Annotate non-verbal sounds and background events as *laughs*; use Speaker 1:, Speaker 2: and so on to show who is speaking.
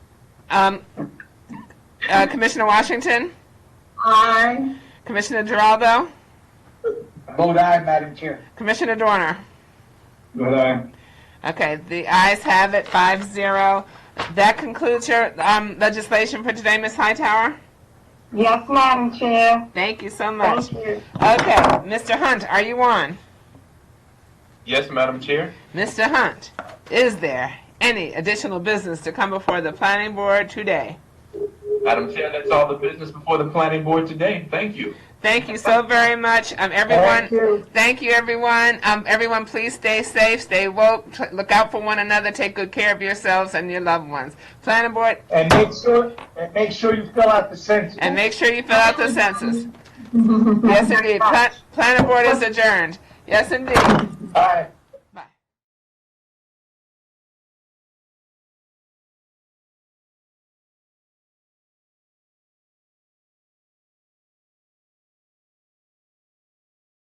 Speaker 1: Um, uh, Commissioner Washington,
Speaker 2: Aye.
Speaker 1: Commissioner Geraldo,
Speaker 3: I vote aye, Madam Chair.
Speaker 1: Commissioner Dorner.
Speaker 3: Vote aye.
Speaker 1: Okay, the ayes have it, five zero. That concludes your um, legislation for today, Ms. Hightower.
Speaker 2: Yes, Madam Chair.
Speaker 1: Thank you so much.
Speaker 2: Thank you.
Speaker 1: Okay, Mr. Hunt, are you on?
Speaker 4: Yes, Madam Chair.
Speaker 1: Mr. Hunt, is there any additional business to come before the planning board today?
Speaker 4: Madam Chair, that's all the business before the planning board today. Thank you.
Speaker 1: Thank you so very much, um, everyone.
Speaker 2: Thank you.
Speaker 1: Thank you, everyone. Um, everyone, please stay safe, stay woke, tr- look out for one another, take good care of yourselves and your loved ones. Planning board,
Speaker 3: And make sure, and make sure you fill out the census.
Speaker 1: and make sure you fill out the
Speaker 2: *laughs*
Speaker 1: census. Yes, indeed. Pla- Planning board is adjourned. Yes, indeed.
Speaker 3: Aye.